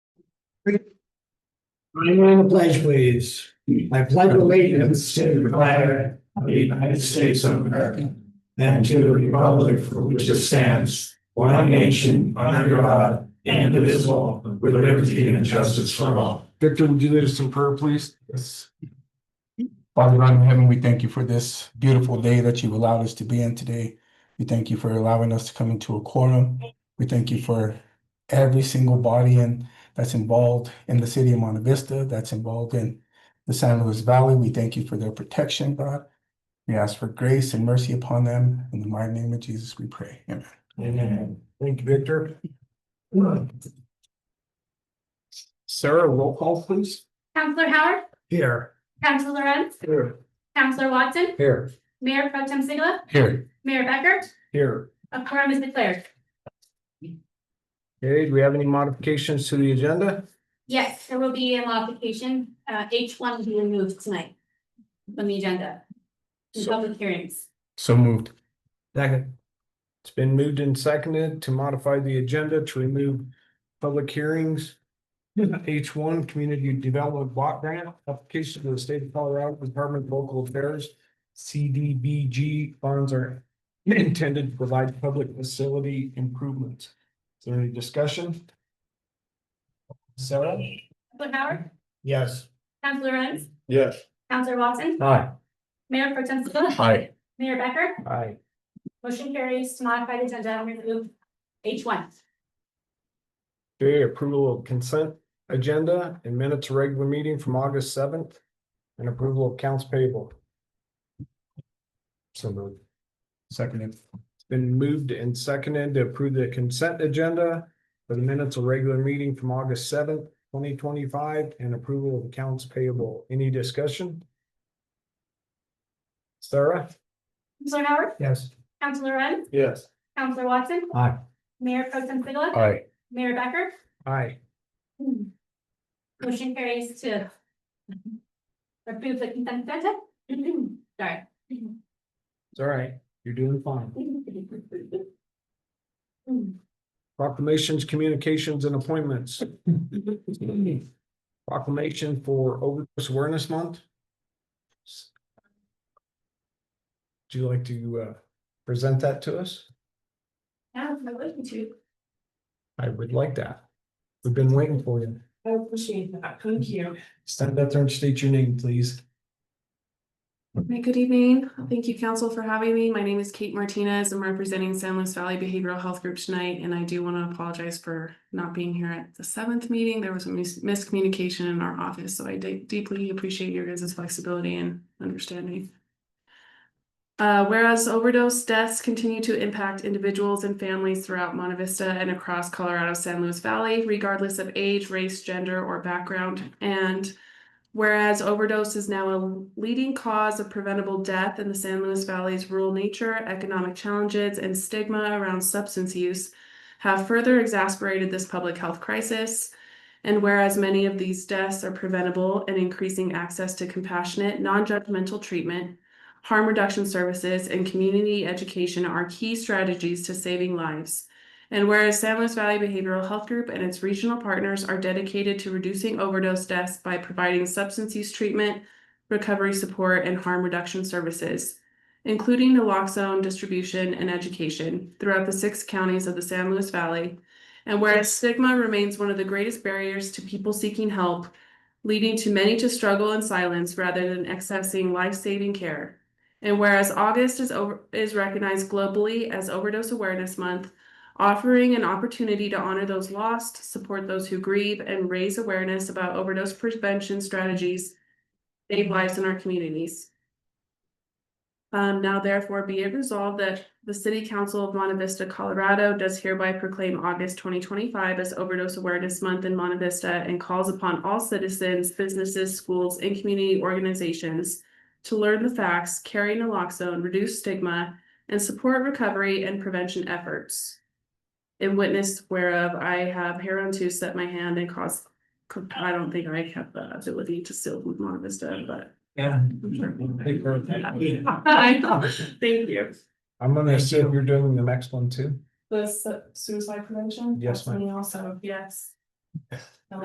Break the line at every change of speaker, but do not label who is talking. I a pledge, please. I pledge allegiance to the flag of the United States of America and to the republic for which it stands, one nation, under God, indivisible, with liberty and justice for all.
Victor, would you lead us in prayer, please? Yes. Father God in heaven, we thank you for this beautiful day that you've allowed us to be in today. We thank you for allowing us to come into a quorum. We thank you for every single body and that's involved in the city of Monte Vista, that's involved in the San Luis Valley. We thank you for their protection, God. We ask for grace and mercy upon them. In the mighty name of Jesus, we pray. Amen.
Amen. Thank you, Victor.
Sarah, roll call, please.
Counselor Howard,
Here.
Counselor Renz,
Here.
Counselor Watson,
Here.
Mayor Pro Tem Sigala,
Here.
Mayor Becker,
Here.
a quorum is declared.
Okay, do we have any modifications to the agenda?
Yes, there will be a modification, uh, H one will be removed tonight from the agenda. In
So-
public hearings.
So moved.
Second. It's been moved and seconded to modify the agenda to remove public hearings. H one, Community Development Block Grant, application to the state of Colorado Department of Local Affairs. CDBG funds are intended to provide public facility improvements. Is there any discussion? Sarah?
Counselor Howard,
Yes.
Counselor Renz,
Yes.
Counselor Watson,
Aye.
Mayor Pro Tem Sigala,
Hi.
Mayor Becker,
Aye.
motion carries to modify the agenda and remove H one.
Okay, approval of consent agenda and minutes of regular meeting from August seventh and approval of accounts payable. So moved.
Seconded.
It's been moved and seconded to approve the consent agenda for the minutes of regular meeting from August seventh, twenty twenty-five and approval of accounts payable. Any discussion? Sarah?
Counselor Howard,
Yes.
Counselor Renz,
Yes.
Counselor Watson,
Aye.
Mayor Pro Tem Sigala,
Aye.
Mayor Becker,
Aye.
Motion carries to approve the consent agenda. Sorry.
It's all right. You're doing fine. Proclamations, communications and appointments. Proclamation for overdose awareness month. Would you like to uh present that to us?
Now, if I wish to,
I would like that. We've been waiting for you.
I uh, appreciate that. Thank you.
Stand up there and state your name, please.
Hi, good evening. Thank you, council, for having me. My name is Kate Martinez. I'm representing San Luis Valley Behavioral Health Group tonight, and I do want to apologize for not being here at the seventh meeting. There was a mis- miscommunication in our office, so I de- deeply appreciate your guys' flexibility and understanding. Uh, whereas overdose deaths continue to impact individuals and families throughout Monte Vista and across Colorado San Luis Valley, regardless of age, race, gender, or background, and Whereas overdose is now a leading cause of preventable death in the San Luis Valley's rural nature, economic challenges, and stigma around substance use have further exacerbated this public health crisis. And whereas many of these deaths are preventable and increasing access to compassionate, non judgmental treatment, harm reduction services, and community education are key strategies to saving lives. And whereas San Luis Valley Behavioral Health Group and its regional partners are dedicated to reducing overdose deaths by providing substance use treatment, recovery support, and harm reduction services, including naloxone distribution and education throughout the six counties of the San Luis Valley. And whereas stigma remains one of the greatest barriers to people seeking help, leading to many to struggle in silence rather than accessing life-saving care. And whereas August is over is recognized globally as Overdose Awareness Month, offering an opportunity to honor those lost, support those who grieve, and raise awareness about overdose prevention strategies, to save lives in our communities. Um, now therefore be it resolved that the City Council of Monte Vista, Colorado does hereby proclaim August twenty twenty-five as Overdose Awareness Month in Monte Vista and calls upon all citizens, businesses, schools, and community organizations to learn the facts, carry naloxone, reduce stigma, and support recovery and prevention efforts. In witness whereof I have hereunto set my hand and caused, I don't think I have the ability to seal Monte Vista, but.
Yeah.
I know. Thank you.
I'm gonna assume you're doing the next one too.
The su- suicide prevention?
Yes,
That's me Also, yes.